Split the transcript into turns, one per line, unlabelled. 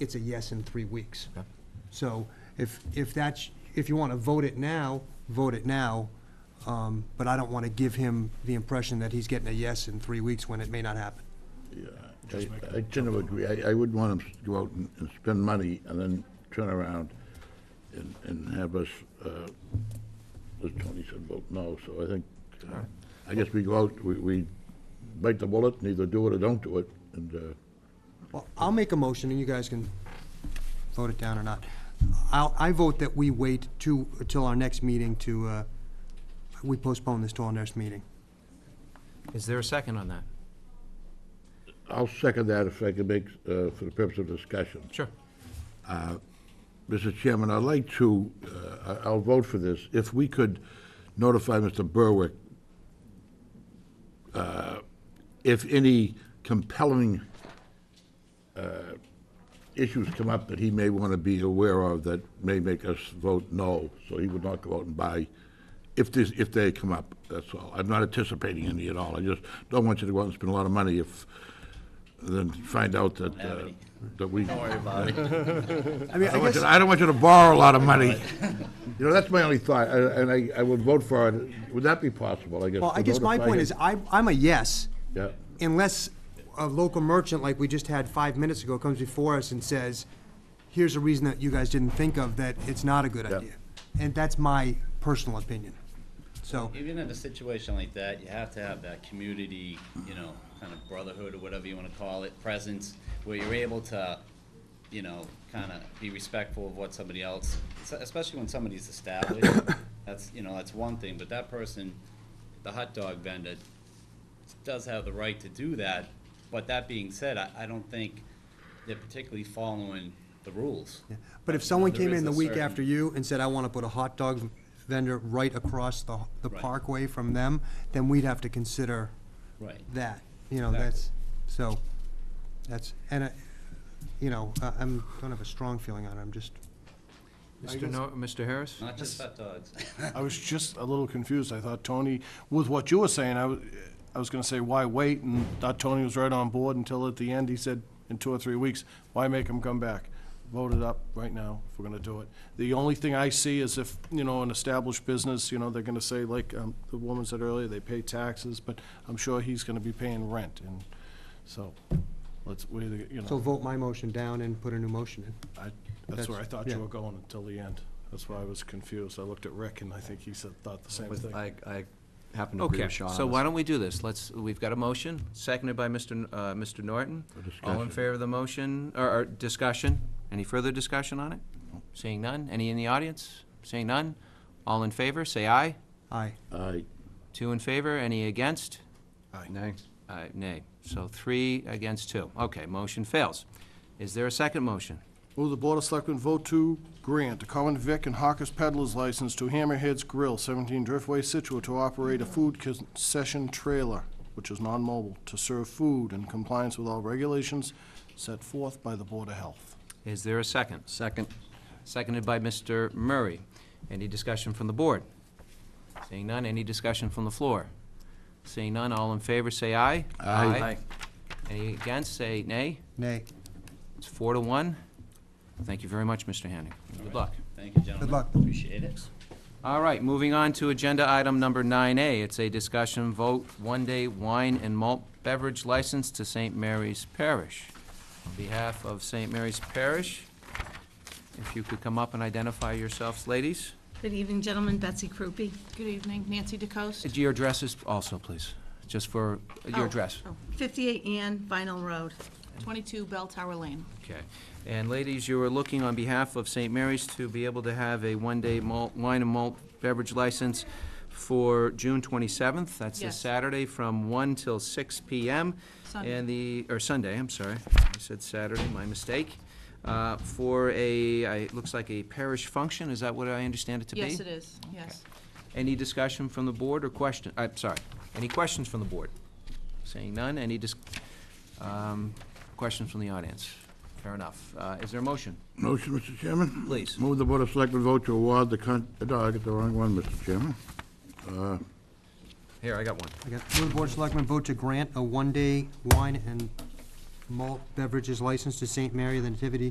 it's a yes in three weeks.
Okay.
So if, if that's, if you want to vote it now, vote it now, um, but I don't want to give him the impression that he's getting a yes in three weeks when it may not happen.
Just make
I tend to agree, I, I wouldn't want them to go out and and spend money and then turn around and, and have us, uh, as Tony said, vote no, so I think, uh, I guess we go out, we, we bite the bullet, and either do it or don't do it, and, uh,
Well, I'll make a motion, and you guys can vote it down or not. I'll, I vote that we wait to, till our next meeting to, uh, we postpone this till our next meeting.
Is there a second on that?
I'll second that if I can make, uh, for the purpose of discussion.
Sure.
Mr. Chairman, I'd like to, uh, I- I'll vote for this, if we could notify Mr. Berwick uh, if any compelling uh, issues come up that he may want to be aware of that may make us vote no, so he would not go out and buy, if this, if they come up, that's all. I'm not anticipating any at all, I just don't want you to go out and spend a lot of money if, then find out that, uh, that we. Don't worry about it.
I mean,
I
I
don't want you
guess,
to- I don't want you to borrow a lot of money. You know, that's my only thought, I- and I, I would vote for it. Would that be possible, I guess?
well, I
to
guess my
notify
point
him?
is, I, I'm a yes.
Yeah.
Unless a local merchant, like we just had five minutes ago, comes before us and says, here's a reason that you guys didn't think of, that it's not a good
Yeah.
idea. And that's my personal opinion. So,
Even in a situation like that, you have to have that community, you know, kind of brotherhood or whatever you wanna call it, presence, where you're able to, you know, kinda be respectful of what somebody else, es- especially when somebody's established, that's, you know, that's one thing, but that person, the hot dog vendor, does have the right to do that, but that being said, I, I don't think they're particularly following the rules.
but if someone
There
came
is
in the
a
week
certain-
after you and said, I want to put a hot dog vendor right across the, the
Right.
parkway from them, then we'd have to consider
Right.
that, you know, that's, so, that's, and, I- you know, I- I'm, don't have a strong feeling on it, I'm just,
Mr. No, Mr. Harris?
Not just hot dogs.
I was just a little confused. I thought Tony, with what you were saying, I was, I was gonna say, why wait? And thought Tony was right on board until at the end, he said, in two or three weeks, why make him come back? Vote it up right now if we're gonna do it. The only thing I see is if, you know, an established business, you know, they're gonna say, like, um, the woman said earlier, they pay taxes, but I'm sure he's gonna be paying rent, and so, let's, we, you
so
know,
vote my motion down and put a new motion in.
I, that's where I thought
yeah.
you were going until the end. That's why I was confused. I looked at Rick, and I think he said, thought the same
With-
thing.
I, I happen to agree
Okay,
with Sean.
so why don't we do this? Let's, we've got a motion, seconded by Mr. N- uh, Mr. Norton. All in
discussion.
favor of the motion, or, or discussion? Any further discussion on it? Seeing none? Any in the audience? Seeing none? All in favor, say aye.
Aye.
I,
Two in favor, any against?
Nay.
Uh, nay. So three against two. Okay, motion fails. Is there a second motion?
Move the Board of Selectmen vote to grant a common vic and hawker's peddler's license to Hammerheads Grill, 17 Driftway, Situate, to operate a food concession trailer, which is non-mobile, to serve food in compliance with all regulations set forth by the Board of Health.
Is there a second?
Second.
Seconded by Mr. Murray. Any discussion from the board? Seeing none, any discussion from the floor? Seeing none, all in favor, say aye.
Aye.
Any against, say nay.
Nay.
It's four to one. Thank you very much, Mr. Hanning. Good luck.
Thank you, gentlemen.
luck.
Appreciate it.
All right, moving on to agenda item number nine A. It's a discussion vote, one-day wine and malt beverage license to St. Mary's Parish. On behalf of St. Mary's Parish, if you could come up and identify yourselves, ladies.
Good evening, gentlemen. Betsy Krupe.
Good evening, Nancy DeCoste.
Your addresses also, please, just for your
Oh,
address.
oh, 58 Ann Vinyl Road.
22 Bell Tower Lane.
Okay. And ladies, you are looking on behalf of St. Mary's to be able to have a one-day malt, wine and malt beverage license for June twenty-seventh. That's this
Yes.
Saturday from one till six PM.
Sunday.
And the, or Sunday, I'm sorry. I said Saturday, my mistake. Uh, For a, I- it looks like a parish function, is that what I understand it to be?
Yes, it is, yes.
Any discussion from the board or question, I'm sorry, any questions from the board? Seeing none, any dis, um, questions from the audience? Fair enough. Uh, is there a motion?
motion, Mr. Chairman?
Please.
Move the Board of Selectmen vote to award the con, no, I got the wrong one, Mr. Chairman.
Here, I got one.
I got, will the Board of Selectmen vote to grant a one-day wine and malt beverages license to St. Mary of the Nativity